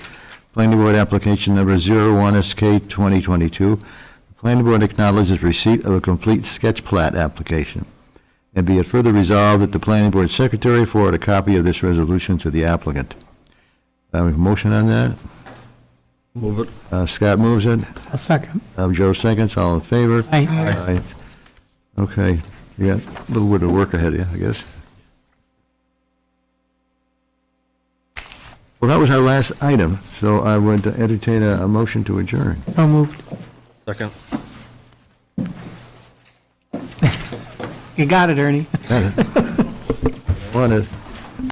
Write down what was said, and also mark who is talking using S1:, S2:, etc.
S1: Planning Board application number 01SK 2022. The Planning Board acknowledges receipt of a complete sketch plat application. And be it further resolved that the Planning Board Secretary forward a copy of this resolution to the applicant. Uh, we have a motion on that?
S2: Move it.
S1: Uh, Scott moves it.
S3: A second.
S1: Um, Joe seconds, all in favor?
S3: Aye.
S1: Aye. Okay, you got a little bit of work ahead of you, I guess. Well, that was our last item, so I would entertain a, a motion to adjourn.
S3: So moved.
S2: Second.
S3: You got it, Ernie.
S1: Want to